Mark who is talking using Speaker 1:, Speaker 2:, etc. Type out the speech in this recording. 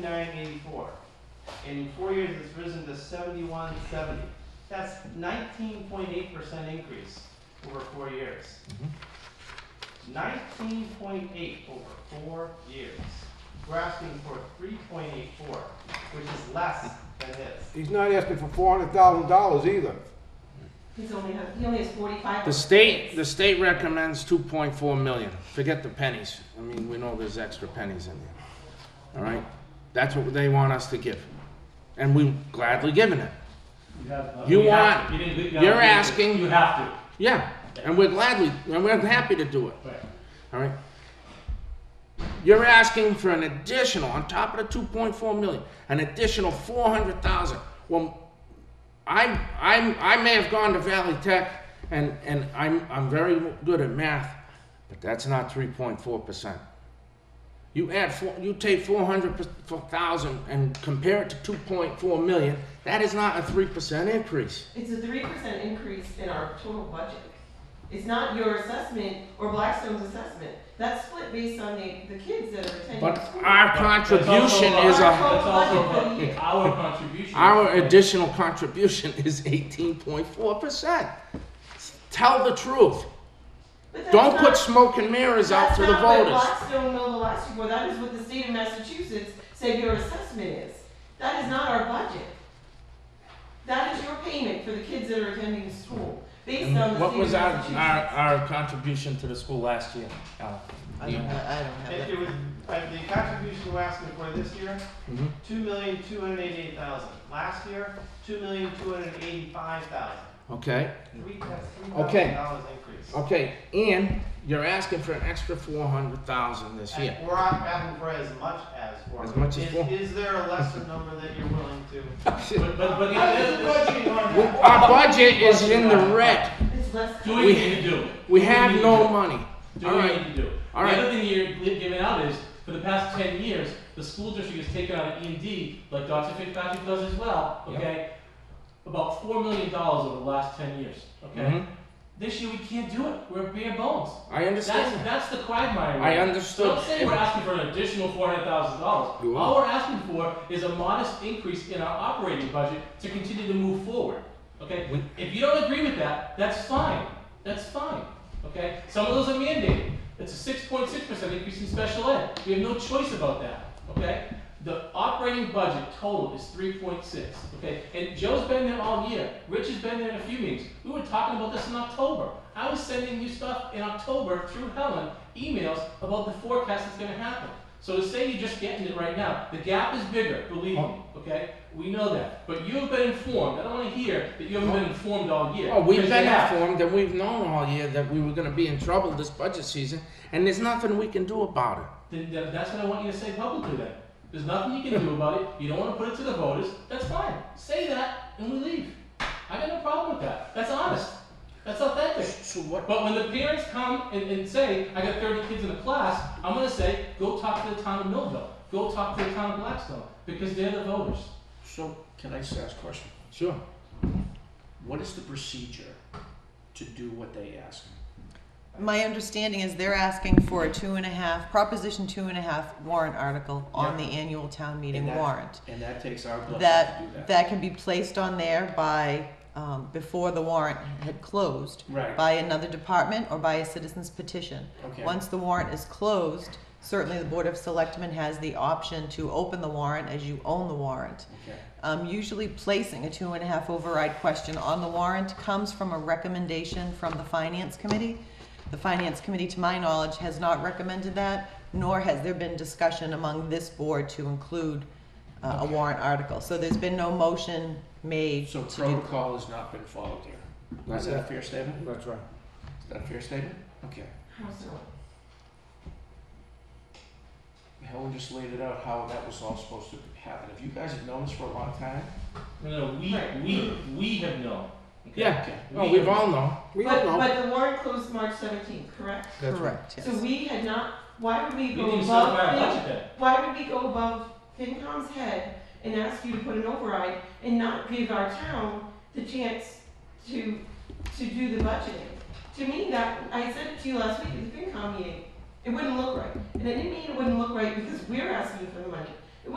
Speaker 1: nine eighty-four. And in four years, it's risen to seventy-one seventy. That's nineteen point eight percent increase over four years. Nineteen point eight over four years. We're asking for three point eight four, which is less than his.
Speaker 2: He's not asking for four hundred thousand dollars either.
Speaker 3: He's only, has- he only has forty-five.
Speaker 4: The state, the state recommends two point four million. Forget the pennies. I mean, we know there's extra pennies in there. All right? That's what they want us to give. And we gladly given it.
Speaker 5: You have, uh,
Speaker 4: You
Speaker 5: we have
Speaker 4: want-
Speaker 5: to. You didn't- we- you
Speaker 4: you're
Speaker 5: have to.
Speaker 4: asking-
Speaker 5: You have
Speaker 4: Yeah, and we're gladly, and we're happy to do it.
Speaker 5: to. Right.
Speaker 4: All right. You're asking for an additional, on top of the 2.4 million, an additional 400,000. Well, I'm, I'm, I may have gone to Valley Tech, and, and I'm, I'm very good at math, but that's not 3.4 percent. You add four, you take 400,000 and compare it to 2.4 million. That is not a 3 percent increase.
Speaker 3: It's a three percent increase in our total budget. It's not your assessment or Blackstone's assessment. That's split based on the, the kids that are attending
Speaker 4: But
Speaker 3: school.
Speaker 4: our
Speaker 5: That's also
Speaker 4: contribution
Speaker 5: about-
Speaker 4: is a
Speaker 5: That's
Speaker 3: Our
Speaker 5: also about our contribution.
Speaker 4: Our additional contribution is eighteen point four percent. Tell the truth.
Speaker 3: But that's
Speaker 4: Don't
Speaker 3: not-
Speaker 4: put smoke and mirrors out
Speaker 3: that's
Speaker 4: to the
Speaker 3: not what
Speaker 4: voters.
Speaker 3: Blackstone milled the last year for. That is what the state of Massachusetts said your assessment is. That is not our budget. That is your payment for the kids that are attending school, based on the state
Speaker 4: And
Speaker 3: of
Speaker 4: What was our, our,
Speaker 3: Massachusetts.
Speaker 4: our contribution to the school last year, Alan?
Speaker 6: I don't, I I don't have
Speaker 1: It
Speaker 6: that.
Speaker 1: it was, uh, the contribution we're asking for this year,
Speaker 4: Mhm.
Speaker 1: two million, two hundred eighty-eight thousand. Last year, two million, two hundred eighty-five thousand.
Speaker 4: Okay,
Speaker 1: Three, that's three thousand
Speaker 4: Okay.
Speaker 1: dollars increase.
Speaker 4: okay, and you're asking for an extra four hundred thousand this year.
Speaker 1: And we're not asking for as much as four.
Speaker 4: As much as
Speaker 1: Is-
Speaker 4: four.
Speaker 1: Is there a lesser number that you're willing to?
Speaker 5: But, but, but
Speaker 1: How
Speaker 5: it
Speaker 1: is
Speaker 5: is,
Speaker 1: the budget on that?
Speaker 4: Our budget is in the red.
Speaker 3: It's less.
Speaker 5: do what
Speaker 4: We-
Speaker 5: you need to do.
Speaker 4: We
Speaker 5: Do what
Speaker 4: have
Speaker 5: you need to
Speaker 4: no
Speaker 5: do.
Speaker 4: money.
Speaker 5: Do
Speaker 4: All
Speaker 5: what you
Speaker 4: right,
Speaker 5: need to do.
Speaker 4: All
Speaker 5: The
Speaker 4: right.
Speaker 5: other thing you're li- giving out is, for the past ten years, the school district has taken out an E and D, like Dr. Fitzpatrick does as well,
Speaker 4: Yep.
Speaker 5: okay? About four million dollars over the last ten years, okay?
Speaker 4: Mhm.
Speaker 5: This year, we can't do it, we're bare bones.
Speaker 4: I
Speaker 5: That's,
Speaker 4: understand. that.
Speaker 5: that's the quagmire. we're
Speaker 4: I
Speaker 5: in.
Speaker 4: understood.
Speaker 5: Don't say we're asking for an additional four hundred thousand dollars.
Speaker 4: You
Speaker 5: All we're asking for is a modest increase in our operating budget to continue to move forward, okay?
Speaker 4: We-
Speaker 5: If you don't agree with that, that's fine, that's fine, okay? Some of those are mandated. It's a six point six percent increase in special ed. We have no choice about that, okay? The operating budget total is three point six, okay? And Joe's been there all year. Rich has been there in a few meetings. We were talking about this in October. I was sending you stuff in October through Helen, emails about the forecast that's gonna happen. So to say you're just getting it right now, the gap is bigger, believe me,
Speaker 4: Oh.
Speaker 5: okay? We know that. But you have been informed. I don't wanna hear that you haven't been informed all year.
Speaker 4: Oh, we've
Speaker 5: because
Speaker 4: been
Speaker 5: you have.
Speaker 4: informed and we've known all year that we were gonna be in trouble this budget season, and there's nothing we can do about it.
Speaker 5: Then th- that's what I want you to say publicly then. There's nothing you can do about it. You don't want to put it to the voters. That's fine. Say that and we leave. I got no problem with that. That's honest. That's authentic.
Speaker 4: So what?
Speaker 5: But when the parents come and, and say, I got 30 kids in the class, I'm going to say, go talk to the town of Millville. Go talk to the town of Blackstone because they're the voters.
Speaker 7: So, can I just ask a question?
Speaker 4: Sure.
Speaker 7: What is the procedure to do what they ask?
Speaker 6: My understanding is they're asking for a two and a half, Proposition two and a half warrant article on the annual town meeting
Speaker 7: And that-
Speaker 6: warrant.
Speaker 7: And that takes our
Speaker 6: That-
Speaker 7: blessing to do that.
Speaker 6: That can be placed on there by, um, before the warrant had closed,
Speaker 7: Right,
Speaker 6: by another department or by a citizen's petition.
Speaker 7: okay.
Speaker 6: Once the warrant is closed, certainly the Board of Selectmen has the option to open the warrant as you own the warrant.
Speaker 7: Okay,
Speaker 6: Um, usually placing a two and a half override question on the warrant comes from a recommendation from the Finance Committee. The Finance Committee, to my knowledge, has not recommended that, nor has there been discussion among this board to include uh, a warrant article. So there's been no motion made to
Speaker 7: So
Speaker 6: do.
Speaker 7: protocol has not been followed here. Is
Speaker 4: That's
Speaker 7: that a
Speaker 4: it.
Speaker 7: fair statement?
Speaker 4: That's right.
Speaker 7: Is that a fair statement? Okay.
Speaker 3: How so?
Speaker 7: Helen just laid it out how that was all supposed to happen. If you guys have known this for a long time,
Speaker 5: No, no, we, we, we have known. Okay?
Speaker 4: Yeah.
Speaker 7: okay.
Speaker 4: No, we've all known.
Speaker 2: We
Speaker 3: But,
Speaker 2: don't know.
Speaker 3: but the warrant closed March seventeenth, correct?
Speaker 4: That's right.
Speaker 6: Correct, yes.
Speaker 3: So we had not, why would we
Speaker 5: We
Speaker 3: go
Speaker 5: didn't set
Speaker 3: above,
Speaker 5: up our
Speaker 3: Fin-
Speaker 5: budget then.
Speaker 3: why would we go above FinCom's head and ask you to put an override and not give our town the chance to, to do the budgeting? To me, that, I said it to you last week at the FinCom meeting, it wouldn't look right. And I didn't mean it wouldn't look right because we're asking for the money.